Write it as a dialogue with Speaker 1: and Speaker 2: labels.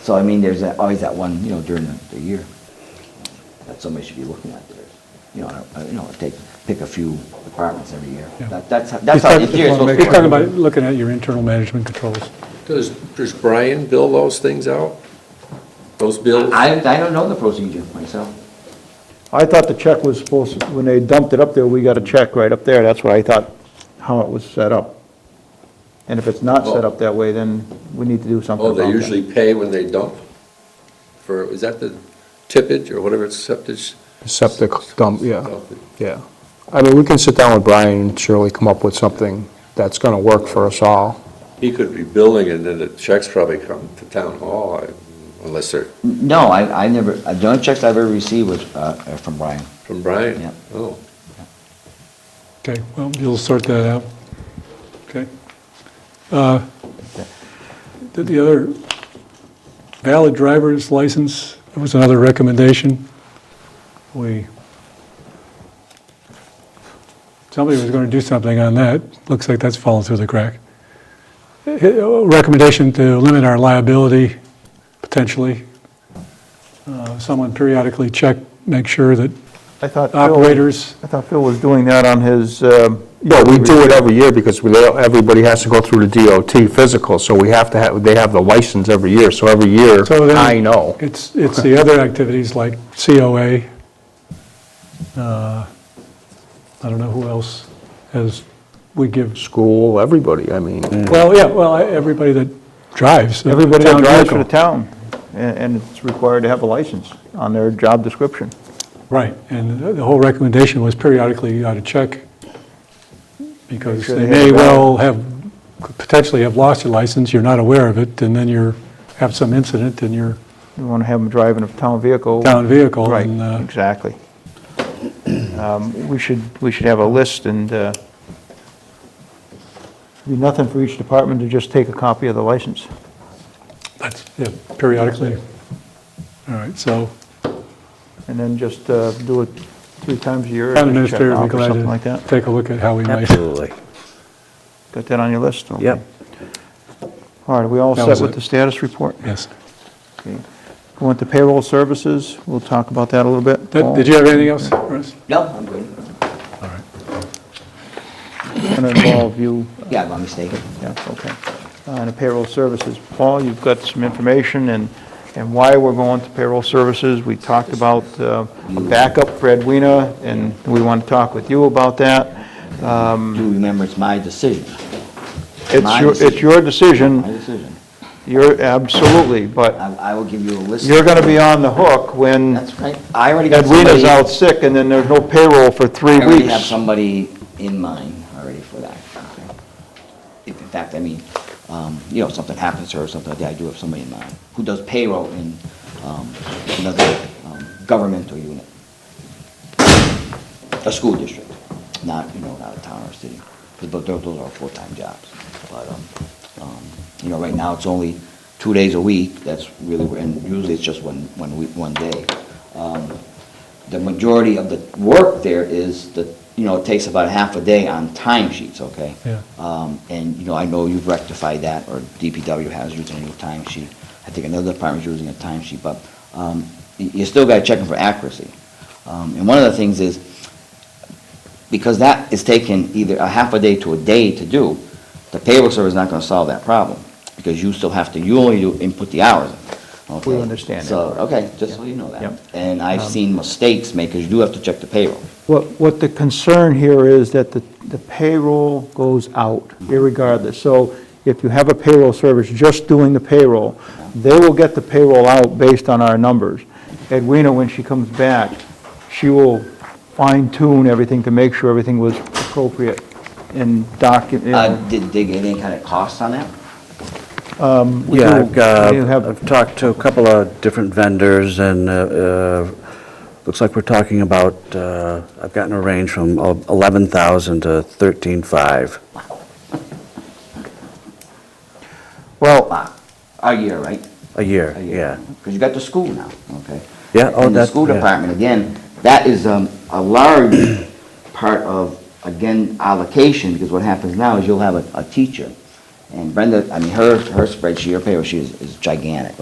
Speaker 1: So I mean, there's that- always that one, you know, during the, the year that somebody should be looking at theirs. You know, I- I- you know, take, pick a few departments every year.
Speaker 2: Yeah.
Speaker 1: That, that's, how- that's how
Speaker 2: He's
Speaker 1: the
Speaker 2: talking-
Speaker 1: year is
Speaker 2: He's talking
Speaker 1: supposed
Speaker 2: about
Speaker 1: to be.
Speaker 2: looking at your internal management controls.
Speaker 3: Does, does Brian bill those things out? Those bills?
Speaker 1: I, I don't know the procedure myself.
Speaker 4: I thought the check was supposed, to- when they dumped it up there, we got a check right up there, that's what I thought, how it was set up. And if it's not set up that way, then we need to do something
Speaker 3: Oh,
Speaker 4: about that.
Speaker 3: they usually pay when they dump? For, is that the tippage or whatever it's septic?
Speaker 5: Septic dump, yeah,
Speaker 3: Dump.
Speaker 5: yeah. I mean, we can sit down with Brian and surely come up with something that's going to work for us all.
Speaker 3: He could be billing and then the checks probably come to town hall I- unless they're
Speaker 1: No, I, I never, uh, the only checks I've ever received was, uh, uh, from Brian.
Speaker 3: from Brian.
Speaker 1: Yeah.
Speaker 3: Oh,
Speaker 2: Okay, well, you'll sort that out. Okay. Uh, The the other valid driver's license, that was another recommendation. We, somebody was going to do something on that. Looks like that's fallen through the crack. Eh, Recommendation to limit our liability, potentially. Uh, Someone periodically check, make sure that
Speaker 4: I thought Phil-
Speaker 2: operators
Speaker 4: I thought Phil was doing that on his, um,
Speaker 5: Well, we do it every year because we, they- everybody has to go through the DOT physical, so we have to have, they have the license every year, so every year,
Speaker 2: So then
Speaker 5: I know.
Speaker 2: It's, it's the other activities like COA. uh, I don't know who else has, we give,
Speaker 5: School, everybody, I mean,
Speaker 2: well, yeah, well, everybody that drives. a
Speaker 4: everybody that
Speaker 2: town
Speaker 4: drives for the
Speaker 2: vehicle.
Speaker 4: town, a- and it's required to have a license on their job description.
Speaker 2: Right, and the the whole recommendation was periodically you ought to check, because
Speaker 4: Make sure
Speaker 2: they
Speaker 4: they have
Speaker 2: may
Speaker 4: a valid-
Speaker 2: well have, could potentially have lost your license, you're not aware of it, and then you're, have some incident in your
Speaker 4: You want to have them driving a town vehicle.
Speaker 2: town vehicle. and, uh,
Speaker 4: Right, exactly. Um, We should, we should have a list and, uh, be nothing for each department to just take a copy of the license.
Speaker 2: That's, yeah, periodically. All right, so
Speaker 4: And then just uh, do it three times a year.
Speaker 2: Town
Speaker 4: and check
Speaker 2: administrator would
Speaker 4: off
Speaker 2: be
Speaker 4: or Something like
Speaker 2: glad to
Speaker 4: that.
Speaker 2: take a look at how we might.
Speaker 6: Absolutely.
Speaker 4: Got that on your list? Okay.
Speaker 6: Yep.
Speaker 4: All right, are we all
Speaker 2: That
Speaker 4: set
Speaker 2: was
Speaker 4: with
Speaker 2: it.
Speaker 4: the status report?
Speaker 2: Yes.
Speaker 4: Okay. Go on to payroll services, we'll talk about that a little bit.
Speaker 2: Did did you have anything else for us?
Speaker 1: No, I'm good.
Speaker 4: It's going to involve you,
Speaker 1: Yeah, my mistake.
Speaker 4: yeah, okay. On the payroll services, Paul, you've got some information and, and why we're going to payroll services. We talked about uh, a backup for Edwina, and we want to talk with you about that.
Speaker 1: Do remember, it's my decision,
Speaker 4: It's
Speaker 1: My
Speaker 4: your,
Speaker 1: decision.
Speaker 4: it's your
Speaker 1: my
Speaker 4: decision,
Speaker 1: decision.
Speaker 4: you're, absolutely, but
Speaker 1: I, I will give you a list.
Speaker 4: you're going to be on the hook when
Speaker 1: That's right. I already got somebody.
Speaker 4: Edwina's out sick and then there's no payroll for three
Speaker 1: I already have
Speaker 4: weeks.
Speaker 1: somebody in mind already for that. If in fact, I mean, um, you know, if something happens to her or something like that, I do have somebody in mind who does payroll in, um, another, um, governmental unit. A school district, not, you know, not a town or city, because those, those are full-time jobs. But, um, um, you know, right now, it's only two days a week, that's really, and usually it's just one, one week, one day. Um, the majority of the work there is the, you know, it takes about half a day on timesheets, okay?
Speaker 2: Yeah.
Speaker 1: Um, and, you know, I know you've rectified that, or DPW has using a new timesheet. I think another department's using a timesheet, but, um, you, you still gotta check them for accuracy. Um, and one of the things is, because that is taking either a half a day to a day to do, the payroll service is not gonna solve that problem, because you still have to, you only do, input the hours, okay?
Speaker 4: We understand that.
Speaker 1: So, okay, just so you know that.
Speaker 4: Yep. Um,
Speaker 1: And I've seen mistakes made, because you do have to check the payroll.
Speaker 4: What, what the concern here is that the the payroll goes out irregardless. So if you have a payroll service just doing the payroll, they will get the payroll out based on our numbers. Edwina, when she comes back, she will fine tune everything to make sure everything was appropriate and
Speaker 1: Uh,
Speaker 4: document.
Speaker 1: did they get any kind of costs on that?
Speaker 6: Yeah, I've got,
Speaker 4: We do have-
Speaker 6: I've talked to a couple of different vendors, and uh, uh, looks like we're talking about, uh, I've gotten a range from 11,000 to 13,500.
Speaker 4: Well,
Speaker 1: Wow, a year, right?
Speaker 6: A year,
Speaker 1: A year.
Speaker 6: yeah.
Speaker 1: Because you got the school now, okay?
Speaker 6: Yeah, oh,
Speaker 1: And the
Speaker 6: that-
Speaker 1: school
Speaker 6: yeah.
Speaker 1: department, again, that is um, a large part of, again, allocation, because what happens now is you'll have a- a teacher, and Brenda, I mean, her her spreadsheet, her payroll sheet is- is gigantic,